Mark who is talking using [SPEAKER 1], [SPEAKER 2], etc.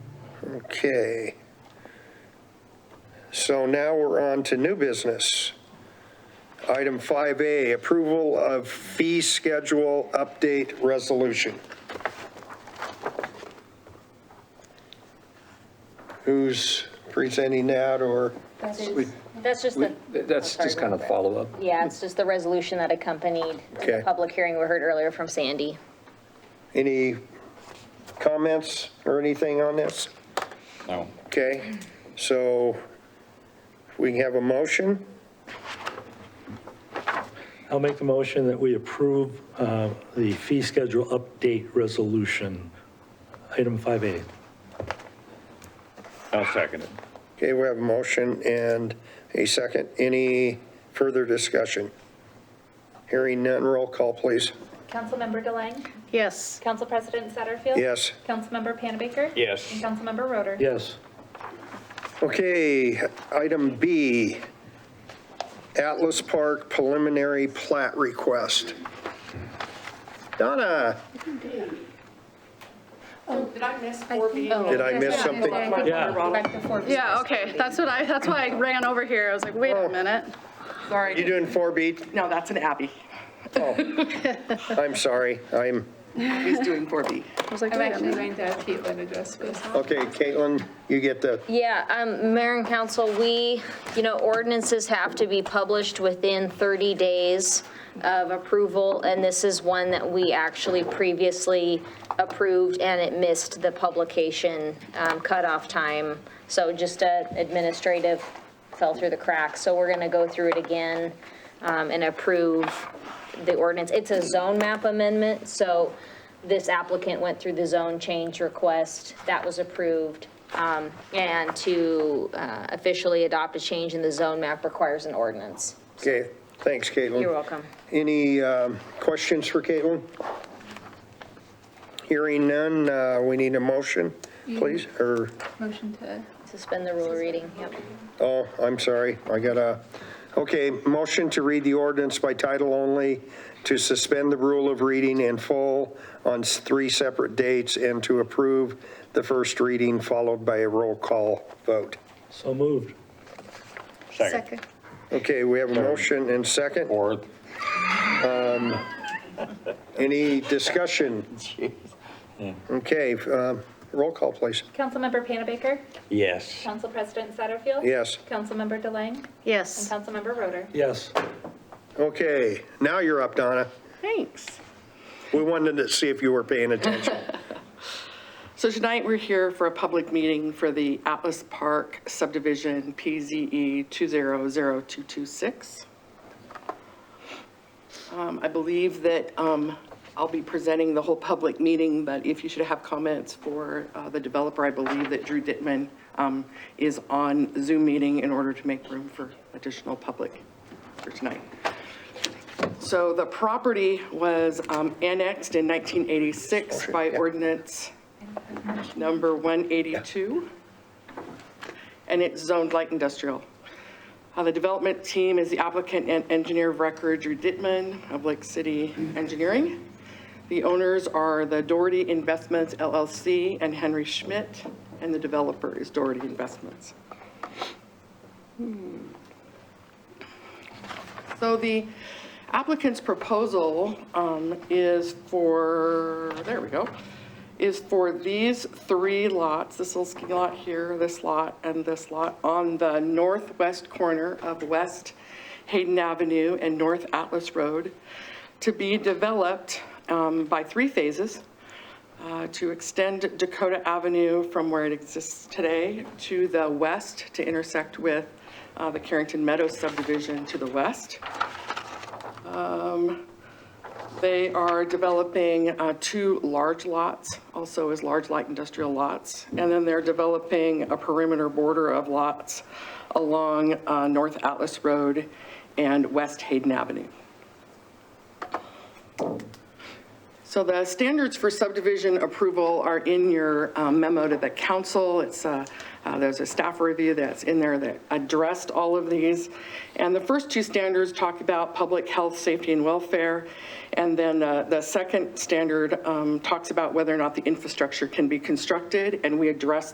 [SPEAKER 1] Okay. So now we're on to new business. Item 5A, approval of fee schedule update resolution. Who's presenting that or?
[SPEAKER 2] That's just the,
[SPEAKER 3] That's just kind of follow-up.
[SPEAKER 2] yeah, it's just the resolution that accompanied
[SPEAKER 1] Okay.
[SPEAKER 2] the public hearing we heard earlier from Sandy.
[SPEAKER 1] Any comments or anything on this?
[SPEAKER 4] No.
[SPEAKER 1] Okay, so we have a motion?
[SPEAKER 5] I'll make the motion that we approve uh, the fee schedule update resolution, item 5A.
[SPEAKER 4] I'll second it.
[SPEAKER 1] Okay, we have a motion and a second. Any further discussion? Hearing none, roll call, please.
[SPEAKER 6] Councilmember Delang.
[SPEAKER 7] Yes.
[SPEAKER 6] Council President Satterfield.
[SPEAKER 1] Yes.
[SPEAKER 6] Councilmember Panabaker.
[SPEAKER 4] Yes.
[SPEAKER 6] And Councilmember Roder.
[SPEAKER 5] Yes.
[SPEAKER 1] Okay, item B, Atlas Park preliminary plat request. Donna,
[SPEAKER 8] Did I miss 4B?
[SPEAKER 1] did I miss something?
[SPEAKER 5] Yeah,
[SPEAKER 8] Right before B.
[SPEAKER 7] Yeah, okay, that's what I, that's why I ran over here, I was like, wait a minute.
[SPEAKER 1] You
[SPEAKER 8] Sorry.
[SPEAKER 1] doing 4B?
[SPEAKER 8] No, that's an Abby.
[SPEAKER 1] I'm sorry, I'm,
[SPEAKER 8] He's doing 4B.
[SPEAKER 7] I was like,
[SPEAKER 9] I'm
[SPEAKER 7] wait a
[SPEAKER 9] actually going
[SPEAKER 7] minute.
[SPEAKER 9] to have Caitlin address this.
[SPEAKER 1] okay, Caitlin, you get the,
[SPEAKER 2] Yeah, um, Mayor and Council, we, you know, ordinances have to be published within 30 days of approval, and this is one that we actually previously approved, and it missed the publication um, cutoff time. So just a administrative fell through the cracks, so we're going to go through it again um, and approve the ordinance. It's a zone map amendment, so this applicant went through the zone change request, that was approved. Um, And to uh, officially adopt a change in the zone map requires an ordinance.
[SPEAKER 1] okay, thanks, Caitlin.
[SPEAKER 2] You're welcome.
[SPEAKER 1] Any um, questions for Caitlin? Hearing none, uh, we need a motion, please, or,
[SPEAKER 9] Motion to
[SPEAKER 2] Suspend the rule of reading, yep.
[SPEAKER 1] oh, I'm sorry, I got a, okay, motion to read the ordinance by title only, to suspend the rule of reading in full on s- three separate dates, and to approve the first reading followed by a roll call vote.
[SPEAKER 5] so moved.
[SPEAKER 4] Second.
[SPEAKER 1] Okay, we have a motion and second.
[SPEAKER 4] Fourth.
[SPEAKER 1] Any discussion? Okay, um, roll call, please.
[SPEAKER 6] Councilmember Panabaker.
[SPEAKER 4] Yes.
[SPEAKER 6] Council President Satterfield.
[SPEAKER 1] Yes.
[SPEAKER 6] Councilmember Delang. And
[SPEAKER 7] Yes,
[SPEAKER 6] Councilmember Roder.
[SPEAKER 5] Yes.
[SPEAKER 1] Okay, now you're up, Donna.
[SPEAKER 8] Thanks.
[SPEAKER 1] We wanted to see if you were paying attention.
[SPEAKER 8] So tonight, we're here for a public meeting for the Atlas Park subdivision, E PZE 200226. Um, I believe that um, I'll be presenting the whole public meeting, but if you should have comments for uh, the developer, I believe that Drew Dittman um, is on Zoom meeting in order to make room for additional public for tonight. So the property was um, annexed in 1986 by ordinance number 182, and it's zoned light industrial. Uh, The development team is the applicant and engineer of record, Drew Dittman of Lake City Engineering. The owners are the Doherty Investments LLC and Henry Schmidt, and the developer is Doherty Investments. So the applicant's proposal um, is for, there we go, is for these three lots, this little ski lot here, this lot, and this lot, on the northwest corner of West Hayden Avenue and North Atlas Road, to be developed um, by three phases uh, to extend Dakota Avenue from where it exists today to the west to intersect with uh, the Carrington Meadows subdivision to the west. Um, They are developing uh, two large lots, also as large light industrial lots. And then they're developing a perimeter border of lots along uh, North Atlas Road and West Hayden Avenue. So the standards for subdivision approval are in your um, memo to the council. It's, uh, uh, there's a staff review that's in there that addressed all of these. And the first two standards talk about public health, safety, and welfare. And then uh, the second standard um, talks about whether or not the infrastructure can be constructed, and we addressed